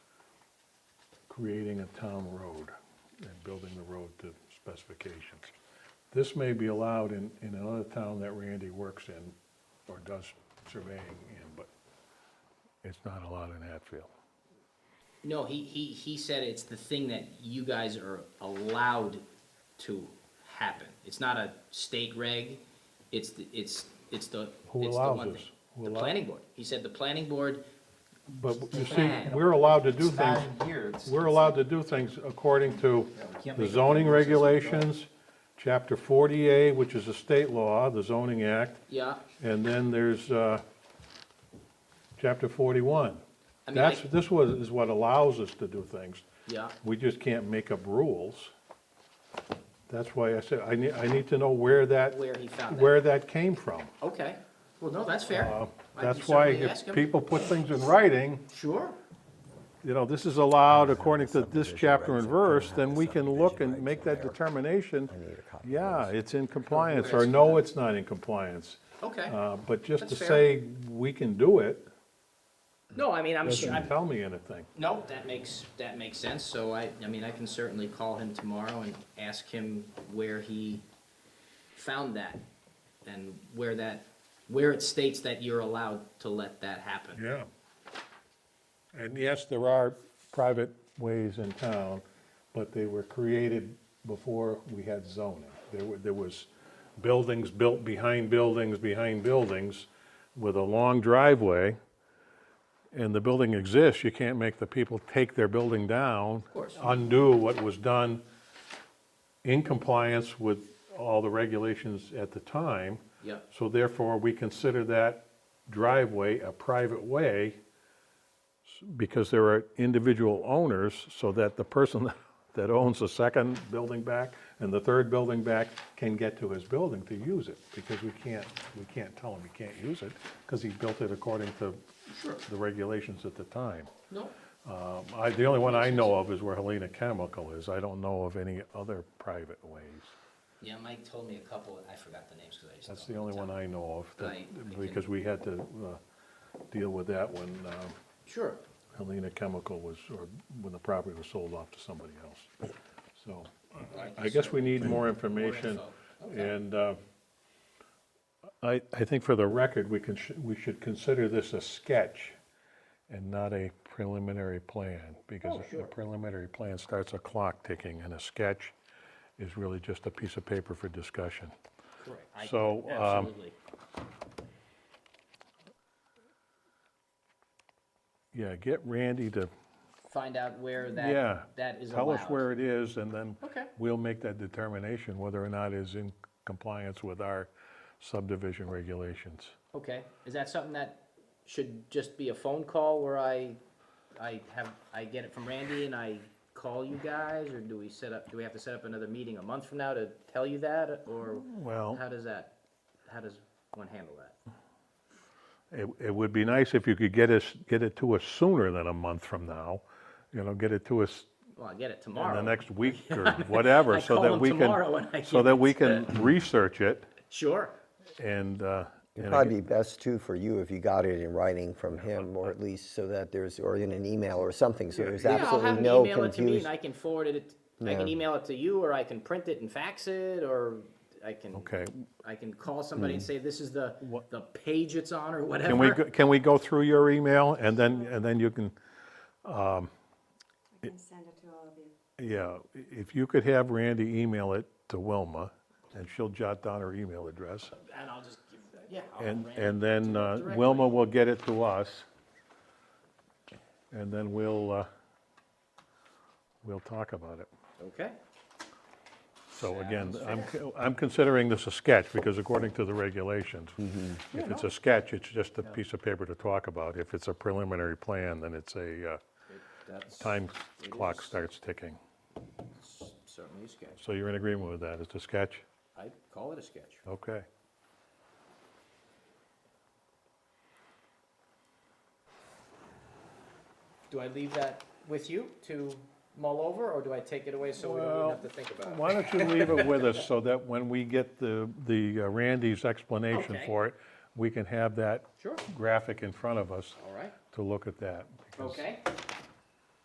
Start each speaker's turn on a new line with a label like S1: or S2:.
S1: creating a town road and building the road to specifications. This may be allowed in, in another town that Randy works in or does surveying in, but it's not allowed in Hatfield.
S2: No, he, he, he said it's the thing that you guys are allowed to happen. It's not a state reg, it's, the it's, it's the,
S1: Who
S2: it's the
S1: allows
S2: one
S1: this?
S2: thing.
S1: Who
S2: The
S1: allow-
S2: planning board. He said the planning board,
S1: But you see, we're allowed to do
S3: It's not
S1: things,
S3: in here. It's-
S1: we're allowed to do things according to
S3: we can't
S1: the
S3: make up
S1: zoning
S3: rules as we go.
S1: regulations, chapter 40A, which is a state law, the zoning act,
S2: yeah,
S1: and then there's, uh, chapter 41.
S2: I mean,
S1: That's,
S2: I-
S1: this was, is what allows us to do things.
S2: yeah.
S1: We just can't make up rules. That's why I said, I need, I need to know where that,
S2: Where he found that.
S1: where that came from.
S2: Okay, well, no, that's fair.
S1: Uh,
S2: I can
S1: That's why
S2: certainly ask
S1: if
S2: him.
S1: people put things in writing,
S2: Sure,
S1: you know, this is allowed according to this
S4: Subdivision
S1: chapter and
S4: regs, they're gonna
S1: verse,
S4: have
S1: then
S4: the
S1: we can look
S4: subdivision
S1: and
S4: regs
S1: make
S4: in
S1: that
S4: there.
S1: determination.
S4: I need a copy of
S1: Yeah,
S4: those.
S1: it's in compliance, or
S2: that's
S1: no, it's not in compliance.
S2: okay.
S1: Uh, But just to
S2: That's fair.
S1: say, we can do it,
S2: No, I mean, I'm sure, I'm,
S1: doesn't tell me anything.
S2: No, that makes, that makes sense, so I, I mean, I can certainly call him tomorrow and ask him where he found that, and where that, where it states that you're allowed to let that happen.
S1: Yeah. And yes, there are private ways in town, but they were created before we had zoning. There were, there was buildings built behind buildings, behind buildings with a long driveway. And the building exists, you can't make the people take their building down. Of
S2: course.
S1: Undo what was done in compliance with all the regulations at the time.
S2: Yep.
S1: So therefore, we consider that driveway a private way s- because there are individual owners, so that the person that owns the second building back and the third building back can get to his building to use it, because we can't, we can't tell him he can't use it, because he built it according to
S2: Sure.
S1: the regulations at the time.
S2: No,
S1: Um, I, the only one I know of is where Helena Chemical is. I don't know of any other private ways.
S2: yeah, Mike told me a couple, I forgot the names, cause I just.
S1: That's the
S2: don't
S1: only
S2: tell.
S1: one I know of, that-
S2: Right, we can-
S1: because we had to uh, deal with that when um,
S2: Sure,
S1: Helena Chemical was, or when the property was sold off to somebody else. So
S2: Right,
S1: I guess we
S2: so-
S1: need more information.
S2: More info, okay.
S1: And uh, I, I think for the record, we can, sh- we should consider this a sketch and not a preliminary plan. Because
S2: Oh,
S1: a
S2: sure.
S1: preliminary plan starts a clock ticking and a sketch is really just a piece of paper for discussion.
S2: correct. I-
S1: So, um,
S2: Absolutely,
S1: Yeah, get Randy to
S2: find out where
S1: Yeah.
S2: that, that is allowed.
S1: Tell us where it is, and then
S2: Okay.
S1: we'll make that determination whether or not it's in compliance with our subdivision regulations.
S2: Okay, is that something that should just be a phone call where I, I have, I get it from Randy and I call you guys? Or do we set up, do we have to set up another meeting a month from now to tell you that, or
S1: Well-
S2: how does that, how does one handle that?
S1: It, it would be nice if you could get us, get it to us sooner than a month from now, you know, get it to us
S2: Well, I get it
S1: in
S2: tomorrow.
S1: the next week or whatever,
S2: I
S1: so
S2: call
S1: that
S2: him
S1: we can.
S2: tomorrow and I
S1: So
S2: get
S1: that we
S2: it.
S1: can research it
S2: Sure,
S1: and, uh. and
S4: It'd
S1: I
S4: probably be best too for you if you got it in writing from him, or at least so that there's, or in an email or something, so there's
S2: yeah, I'll have
S4: absolutely
S2: him email
S4: no
S2: it to me and
S4: confusion.
S2: I can forward it, I can
S4: Yeah.
S2: email it to you, or I can print it and fax it, or I can.
S1: Okay. Hmm.
S2: I can call somebody and say, this is the, the page it's on, or whatever.
S1: Can we, go- can we go through your email and then, and then you can,
S5: I can send it to all of you.
S1: Yeah, i- if you could have Randy email it to Wilma, and she'll jot down her email address.
S2: And I'll just give, yeah. I'll
S1: And,
S2: rant.
S1: and then uh,
S2: directly.
S1: Wilma will get it to us. And then we'll, uh, we'll talk about it.
S2: Okay,
S1: So again, I'm, co- I'm considering this a sketch, because according to the regulations, if it's a sketch, it's just a piece of paper to talk about. If it's a preliminary plan, then it's a, uh,
S2: that's
S1: time clock starts ticking.
S2: certainly a sketch.
S1: So you're in agreement with that? It's a sketch?
S2: I call it a sketch.
S1: Okay.
S2: Do I leave that with you to mull over, or do I take it away so we don't even have to think about it?
S1: Why don't you leave it with us so that when we get the, the uh, Randy's explanation
S2: Okay.
S1: for it, we can have that
S2: Sure.
S1: graphic in front of us
S2: All right,
S1: to look at that. because
S2: okay,